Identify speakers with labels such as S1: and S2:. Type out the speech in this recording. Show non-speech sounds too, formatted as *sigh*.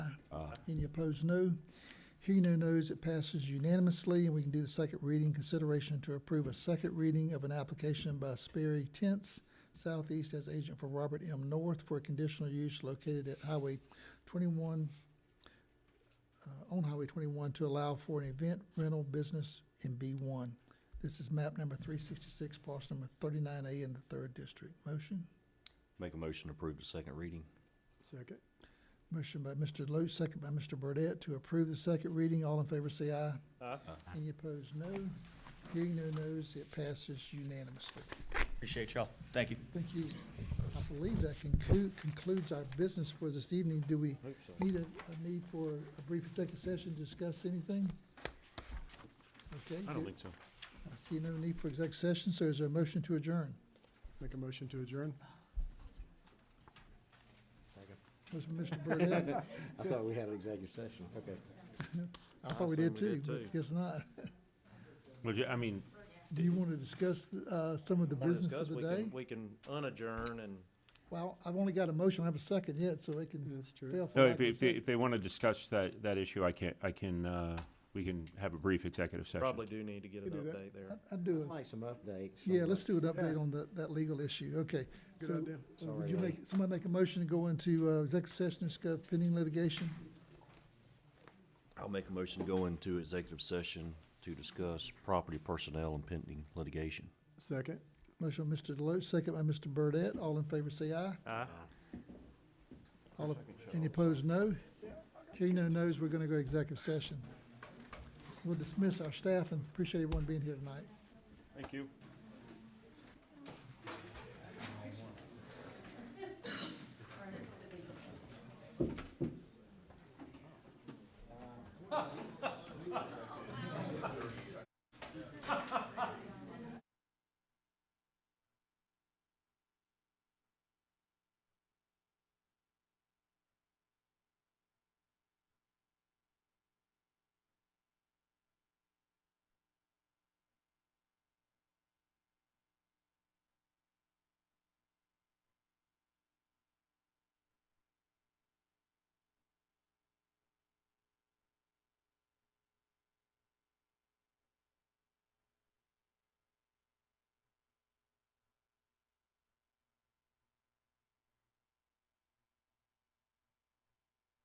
S1: Uh, Any opposed, no. Hearing no nos, it passes unanimously, and we can do the second reading. Consideration to approve a second reading of an application by Sperry Tents Southeast as agent for Robert M. North for a conditional use located at Highway twenty-one, uh, on Highway twenty-one to allow for an event rental business in B one. This is map number three sixty-six, parcel number thirty-nine A in the third district. Motion?
S2: Make a motion to approve the second reading.
S3: Second.
S1: Motion by Mr. Loach, second by Mr. Burdette to approve the second reading. All in favor say aye.
S3: Aye.
S1: Any opposed, no. Hearing no nos, it passes unanimously.
S4: Appreciate y'all. Thank you.
S1: Thank you. I believe that conclu- concludes our business for this evening. Do we need a, a need for a brief executive session to discuss anything? Okay.
S2: I don't think so.
S1: I see no need for executive session, so is there a motion to adjourn?
S3: Make a motion to adjourn?
S1: Motion by Mr.
S2: *laughs*
S1: Burdette.
S5: I thought we had an executive session, okay.
S1: I thought we did too, but guess not.
S6: Well, yeah, I mean,
S1: Do you want to discuss, uh, some of the
S7: wanna
S1: business
S7: discuss,
S1: of the
S7: we can-
S1: day?
S7: We can unadjourn and
S1: Well, I've only got a motion, I have a second yet, so it can
S3: That's true.
S1: fail. for
S6: no,
S1: lack
S6: if,
S1: of a
S6: if, they-
S1: second.
S6: if they want to discuss that, that issue, I can, I can, uh, we can have a brief executive session.
S7: probably do need to get an
S3: Can do that.
S7: update there.
S1: I- I'd do it.
S5: Like some updates.
S1: Yeah, let's do an
S5: it.
S1: update on that, that legal issue, okay.
S3: Good
S1: so- Uh,
S3: idea.
S1: Would
S5: Sorry,
S1: you
S5: Ray.
S1: make, somebody make a motion to go into uh, executive session to discuss pending litigation?
S2: I'll make a motion to go into executive session to discuss property personnel and pending litigation.
S3: Second.
S1: Motion by Mr. Deloach, second by Mr. Burdette. All in favor, say aye.
S7: Aye.
S1: All, op- any opposed, no. Hearing no nos, we're gonna go executive session. We'll dismiss our staff and appreciate everyone being here tonight.
S6: Thank you.